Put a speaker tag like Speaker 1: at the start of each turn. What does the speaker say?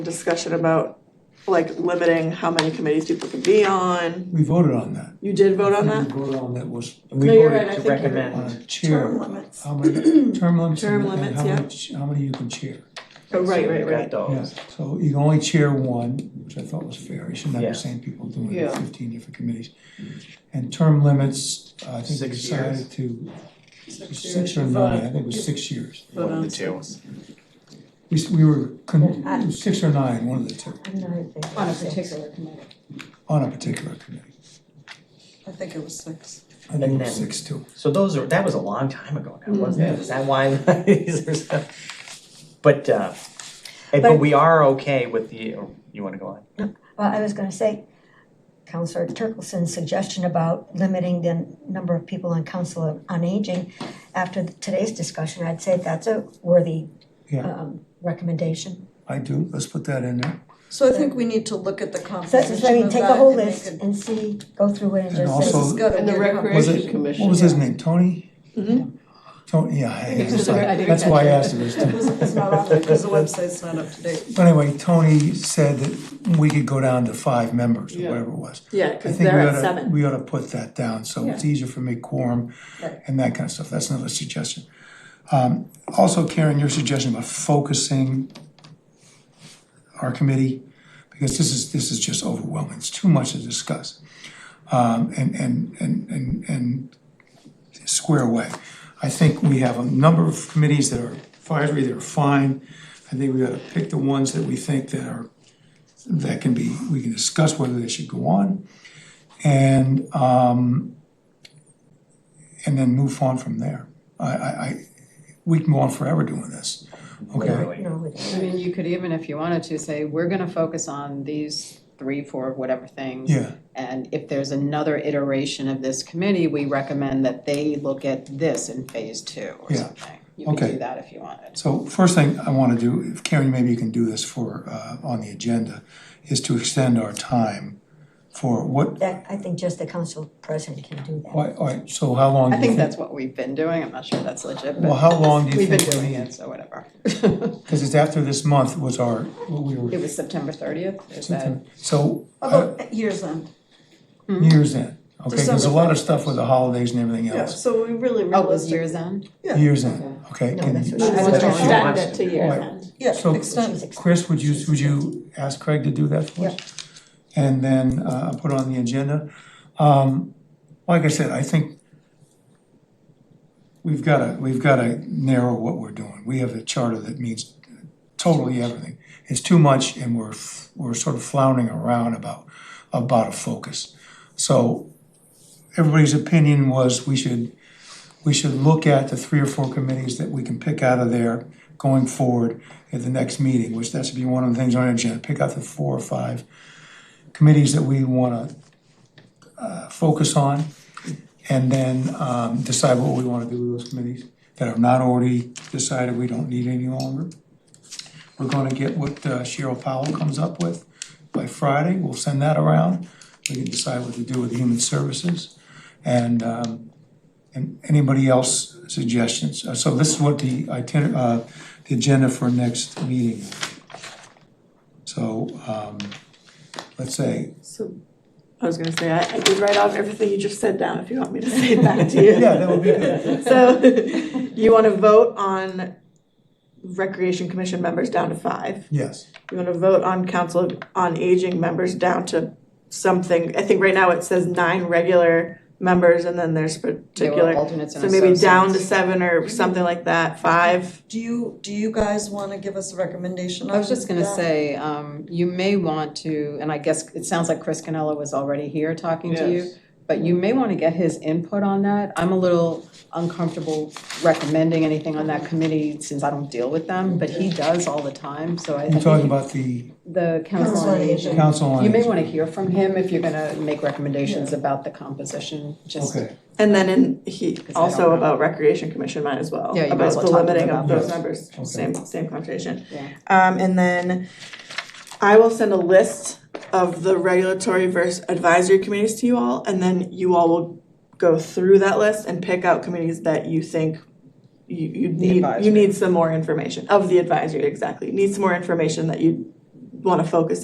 Speaker 1: discussion about like limiting how many committees people can be on.
Speaker 2: We voted on that.
Speaker 1: You did vote on
Speaker 2: We
Speaker 1: that?
Speaker 2: voted on that was
Speaker 3: We
Speaker 1: No, you're right, I
Speaker 3: voted to
Speaker 1: think you're
Speaker 2: on a
Speaker 3: recommend,
Speaker 2: chair.
Speaker 1: Term limits.
Speaker 2: How many, term limits
Speaker 1: Term
Speaker 2: and and how
Speaker 1: limits,
Speaker 2: many, how many you can chair.
Speaker 1: Oh, right, right,
Speaker 3: we got
Speaker 1: right.
Speaker 2: Yeah,
Speaker 3: those.
Speaker 2: so you can only chair one, which I thought was fair, you shouldn't have
Speaker 3: Yeah.
Speaker 2: the same people doing it,
Speaker 4: Yeah.
Speaker 2: fifteen different committees. And term limits, I think we
Speaker 3: Six years.
Speaker 2: decided to, six
Speaker 4: years.
Speaker 2: or nine, I think it was six years.
Speaker 4: But,
Speaker 3: one of
Speaker 4: um,
Speaker 3: the two.
Speaker 2: We, s- we were, con- it was six or nine, one of the two,
Speaker 5: I'm not in favor
Speaker 4: On a
Speaker 5: of six.
Speaker 4: particular committee.
Speaker 2: on a particular committee.
Speaker 4: I think it was six.
Speaker 2: I think it
Speaker 3: And
Speaker 2: was
Speaker 3: then-
Speaker 2: six too.
Speaker 3: So those are, that was a long time ago now,
Speaker 1: Mm-hmm.
Speaker 3: wasn't
Speaker 2: Mhm.
Speaker 3: it? Is that why these are stuff? But uh, and- but
Speaker 5: But-
Speaker 3: we are okay with the, oh, you wanna go on?
Speaker 5: Well, I was gonna say, Counselor Turkelson's suggestion about limiting the number of people on council on aging, after today's discussion, I'd say that's a worthy
Speaker 2: Yeah.
Speaker 5: um recommendation.
Speaker 2: I do, let's put that in there.
Speaker 4: So I think we need to look at the
Speaker 5: So,
Speaker 4: composition of that.
Speaker 5: I mean, take a whole
Speaker 4: and make
Speaker 5: list
Speaker 4: it-
Speaker 5: and see, go through it and
Speaker 2: And
Speaker 5: just
Speaker 4: This
Speaker 2: also-
Speaker 5: say,
Speaker 4: has got a
Speaker 6: And the
Speaker 4: weird
Speaker 2: Was
Speaker 6: recreation
Speaker 2: it, Mm-hmm.
Speaker 6: commission.
Speaker 2: what was his name, Tony?
Speaker 1: Mhm.
Speaker 2: Tony, yeah, I-
Speaker 6: think it was- I didn't
Speaker 2: that's why I
Speaker 6: catch
Speaker 2: asked it, it was
Speaker 4: composition. It was- It's not on there because the website's not up to date.
Speaker 2: But anyway, Tony said that we could go down to five members or
Speaker 6: Yeah.
Speaker 2: whatever it was.
Speaker 1: Yeah,
Speaker 2: I
Speaker 1: because
Speaker 2: think
Speaker 1: they're
Speaker 2: we
Speaker 1: at
Speaker 2: oughta,
Speaker 1: seven.
Speaker 2: we oughta put that down, so it's easier for me quorum and that kind of stuff, that's another suggestion. Um, also Karen, your suggestion about focusing our committee, because this is, this is just overwhelming, it's too much to discuss. Um, and, and, and, and, and square away. I think we have a number of committees that are advisory, that are fine. I think we ought to pick the ones that we think that are, that can be, we can discuss whether they should go on. And, um, and then move on from there. I, I, I, we can go on forever doing this, okay?
Speaker 3: Literally.
Speaker 5: no, with
Speaker 6: I mean, you could even, if you wanted to, say, we're gonna focus on these three, four, whatever things.
Speaker 2: Yeah,
Speaker 6: And if there's another iteration of this committee, we recommend that they look at this in phase two or
Speaker 2: Yeah.
Speaker 6: something. You could
Speaker 2: Okay.
Speaker 6: do that if you wanted.
Speaker 2: so first thing I wanna do, if Karen, maybe you can do this for, uh, on the agenda, is to extend our time for what,
Speaker 5: that, I think just the council president can do that.
Speaker 2: why, all right, so how long?
Speaker 6: I
Speaker 2: do you
Speaker 6: think that's what we've been doing, I'm not sure that's legit,
Speaker 2: Mm-hmm. Well,
Speaker 6: but
Speaker 2: how long do you
Speaker 6: we've been
Speaker 2: think we
Speaker 6: doing it,
Speaker 2: need?
Speaker 6: so whatever.
Speaker 2: Because it's after this month was our, what we
Speaker 6: It
Speaker 2: were,
Speaker 6: was September thirtieth, is that?
Speaker 2: so, uh,
Speaker 4: Although, years end.
Speaker 2: years in, okay, there's a
Speaker 4: December
Speaker 2: lot of stuff with the holidays and everything
Speaker 4: Yeah,
Speaker 2: else.
Speaker 4: so we really
Speaker 6: Oh, it was
Speaker 4: realistic.
Speaker 6: years end?
Speaker 4: Yeah.
Speaker 2: Years in, okay,
Speaker 5: No,
Speaker 2: and-
Speaker 5: that's what
Speaker 1: I was
Speaker 5: she wants.
Speaker 1: gonna
Speaker 3: She
Speaker 1: extend
Speaker 3: wants
Speaker 1: it
Speaker 3: to
Speaker 1: to
Speaker 3: do
Speaker 1: year's
Speaker 2: it.
Speaker 1: end.
Speaker 4: Yeah,
Speaker 2: So-
Speaker 4: extended.
Speaker 2: Chris, would you, would you ask Craig to do that for us? And then, uh, put on the agenda, um, like I said, I think we've gotta, we've gotta narrow what we're doing, we have a charter that means totally everything. It's too much and we're, f- we're sort of floundering around about, about a focus. So everybody's opinion was we should, we should look at the three or four committees that we can pick out of there going forward at the next meeting, which that should be one of the things on our agenda, pick out the four or five committees that we wanna uh focus on and then um decide what we wanna do with those committees that are not already decided we don't need any longer. We're gonna get what uh, Cheryl Powell comes up with by Friday, we'll send that around. We can decide what to do with human services and um and anybody else suggestions? Uh, So this is what the itinerary, uh, the agenda for next meeting. So, um, let's say,
Speaker 1: So, I was gonna say, I, I did write off everything you just said down, if you want me to say it back to you.
Speaker 2: yeah, that would be good.
Speaker 1: So, you wanna vote on recreation commission members down to five.
Speaker 2: Yes,
Speaker 1: You wanna vote on council on aging members down to something, I think right now it says nine regular members and then there's
Speaker 6: There
Speaker 1: particular.
Speaker 6: were alternates and
Speaker 1: So maybe down to
Speaker 6: associates.
Speaker 1: seven or something like that, five.
Speaker 4: Do you, do you guys wanna give us a recommendation on
Speaker 6: I was just gonna
Speaker 4: that?
Speaker 6: say, um, you may want to, and I guess it sounds like Chris Canella was already here talking to you, but you may wanna get his input on that. I'm a little uncomfortable recommending anything on that committee since I don't deal with them, but he does all the time, so I
Speaker 2: you're
Speaker 6: think
Speaker 2: talking about the
Speaker 6: the council
Speaker 5: Council
Speaker 6: on
Speaker 5: on
Speaker 6: aging.
Speaker 2: council on.
Speaker 6: You may
Speaker 2: Aging.
Speaker 6: wanna hear from him if you're gonna make recommendations about the composition, just,
Speaker 2: Okay,
Speaker 1: And then in, he,
Speaker 6: I don't
Speaker 1: also
Speaker 6: know.
Speaker 1: about recreation commission might as well,
Speaker 6: Yeah, you might
Speaker 1: about
Speaker 6: as
Speaker 1: the
Speaker 6: well talk to them
Speaker 1: limiting of
Speaker 6: about
Speaker 1: those
Speaker 2: that.
Speaker 1: members,
Speaker 2: Okay.
Speaker 1: same, same conversation.
Speaker 6: Yeah.
Speaker 1: Um, and then I will send a list of the regulatory versus advisory committees to you all, and then you all will go through that list and pick out committees that you think you, you need, you
Speaker 6: advisory.
Speaker 1: need some more information, of the advisory, exactly, need some more information that you wanna focus